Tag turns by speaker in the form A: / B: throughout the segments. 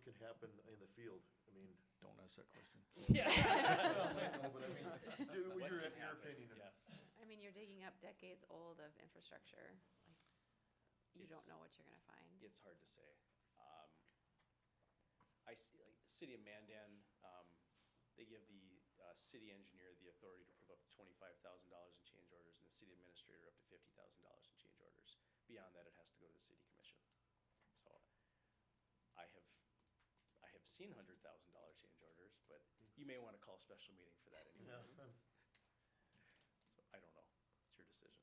A: can happen in the field, I mean,
B: Don't ask that question.
A: no, but I mean, do-
C: What
A: your, your
C: can happen,
A: opinion. of it.
C: Yes.
D: I mean, you're digging up decades old of infrastructure. Like, You don't
C: It's-
D: know what you're gonna find.
C: It's hard to say. Um, I see, like, the city of Mandan, um, they give the, uh, city engineer the authority to approve up to twenty-five thousand dollars in change orders and the city administrator up to fifty thousand dollars in change orders. Beyond that, it has to go to the city commission. So I have, I have seen hundred thousand dollar change orders, but
A: Mm-hmm.
C: you may wanna call a special meeting for that anyway.
A: Yes, um,
C: So I don't know. It's your decision.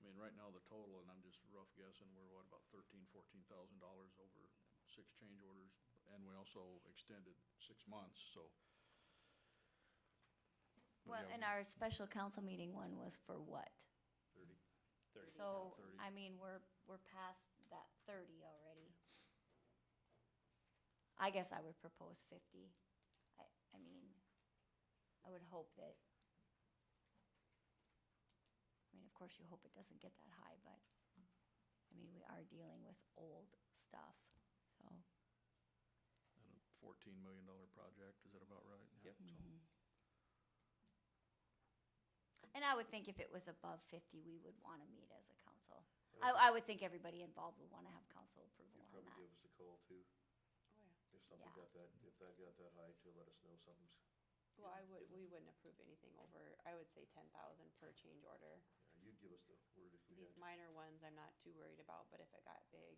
B: I mean, right now, the total, and I'm just rough guessing, we're what, about thirteen, fourteen thousand dollars over six change orders, and we also extended six months, so.
E: Well,
B: Yeah,
E: and our special council meeting one was for what?
B: Thirty.
C: Thirty.
E: So,
B: 30.
E: I mean, we're, we're past that thirty already. I guess I would propose fifty. I, I mean, I would hope that. I mean, of course you hope it doesn't get that high, but, I mean, we are dealing with old stuff, so.
B: And a fourteen million dollar project, is that about right? Yeah,
C: Yep.
B: so-
E: mm. And I would think if it was above fifty, we would wanna meet as a council.
B: Mm-hmm.
E: I, I would think everybody involved would wanna have council approval
A: You'd
E: on
A: probably
E: that.
A: give us a call too,
D: Oh, yeah.
A: if something
E: Yeah.
A: got that, if that got that high, to let us know something's,
D: Well, I would, we wouldn't approve anything over, I would say ten thousand per change order.
A: yeah, you'd give us the word if we had.
D: These
A: to.
D: minor ones, I'm not too worried about, but if it got big,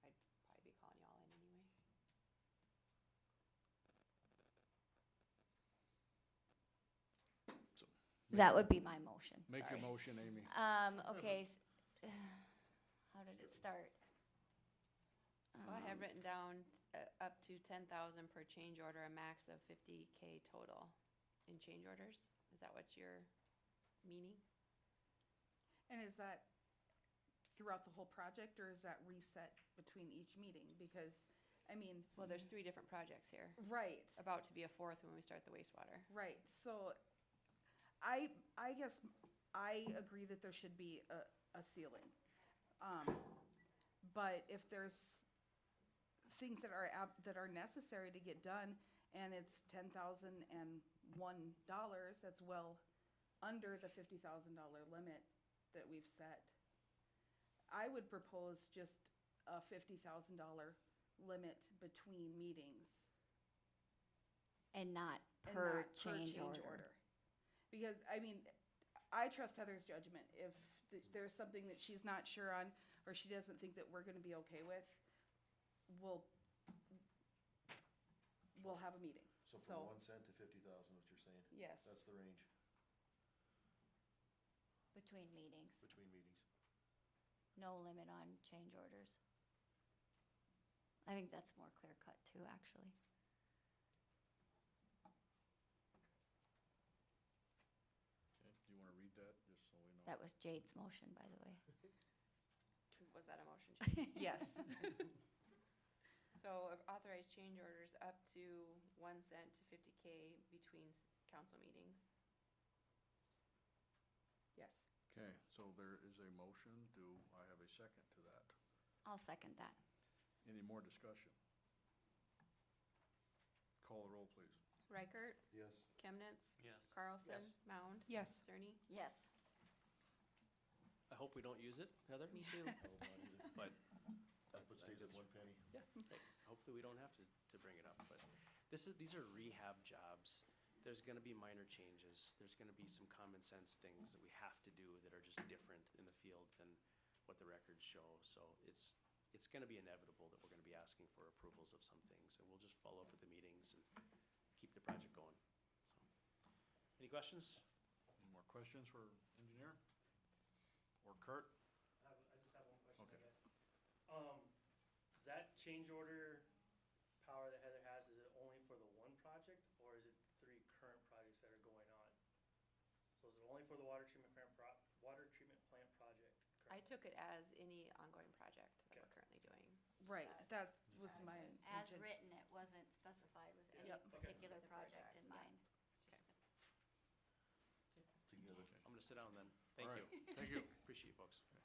D: I'd probably be calling y'all in anyway.
E: That would be my motion.
B: Make your
E: Sorry.
B: motion, Amy.
E: Um, okay, s- how did it start? Um,
D: Well, I had written down, uh, up to ten thousand per change order, a max of fifty K total in change orders. Is that what you're meaning?
F: And is that throughout the whole project or is that reset between each meeting? Because, I mean,
D: Well, there's three different projects here,
F: right,
D: about to be a fourth when we start the wastewater.
F: right. So I, I guess I agree that there should be a, a ceiling. Um, But if there's things that are, ab- that are necessary to get done and it's ten thousand and one dollars, that's well under the fifty thousand dollar limit that we've set. I would propose just a fifty thousand dollar limit between meetings.
E: And not
F: and
E: per
F: not
E: change order.
F: Because, I mean, I trust Heather's judgment. If th- there's something that she's not sure on, or she doesn't think that we're gonna be okay with, we'll, we'll have a meeting.
A: So
F: So-
A: from one cent to fifty thousand, what you're saying?
F: Yes.
A: That's the range
E: Between meetings,
A: between meetings.
E: no limit on change orders. I think that's more clear cut too, actually.
B: Okay, Do you wanna read that, just so we know?
E: That was Jade's motion, by the way.
D: Was that a motion change? Yes. So authorized change orders up to one cent to fifty K between s- council meetings.
F: Yes.
B: Okay, so there is a motion, do I have a second to that?
E: I'll second that.
B: Any more discussion? Call the roll, please.
D: Reichert,
A: Yes,
D: Chemnitz.
C: Yes.
D: Carlson,
C: Yes.
D: Mound.
F: Yes.
D: Cerny.
E: Yes.
C: I hope we don't use it, Heather.
D: Me too.
A: I would not either.
C: But
A: That would stays at one penny.
C: Yeah, like, hopefully we don't have to, to bring it up, but this is, these are rehab jobs. There's gonna be minor changes, there's gonna be some common sense things that we have to do that are just different in the field than what the records show, so it's, it's gonna be inevitable that we're gonna be asking for approvals of some things, and we'll just follow up with the meetings and keep the project going, so. Any questions?
B: Any more questions for engineer? Or Kurt?
G: I have- I just have one question,
B: Okay.
G: I guess. Um, is that change order power that Heather has, is it only for the one project, or is it three current projects that are going on? So is it only for the water treatment plant pro, water treatment plant project?
D: I
G: current?
D: took it as any ongoing project that we're
G: Okay.
D: currently doing.
F: Right, that was my
E: As
F: intention.
E: written, it wasn't specified with any
F: Yep.
G: Okay.
E: particular
D: The
E: project
D: project,
E: in
D: yeah.
E: mind. It's
D: Okay.
E: just a-
A: Together.
B: Okay.
C: I'm gonna sit down then,
B: All
C: thank
B: right.
C: you,
B: Thank you.
C: appreciate you folks.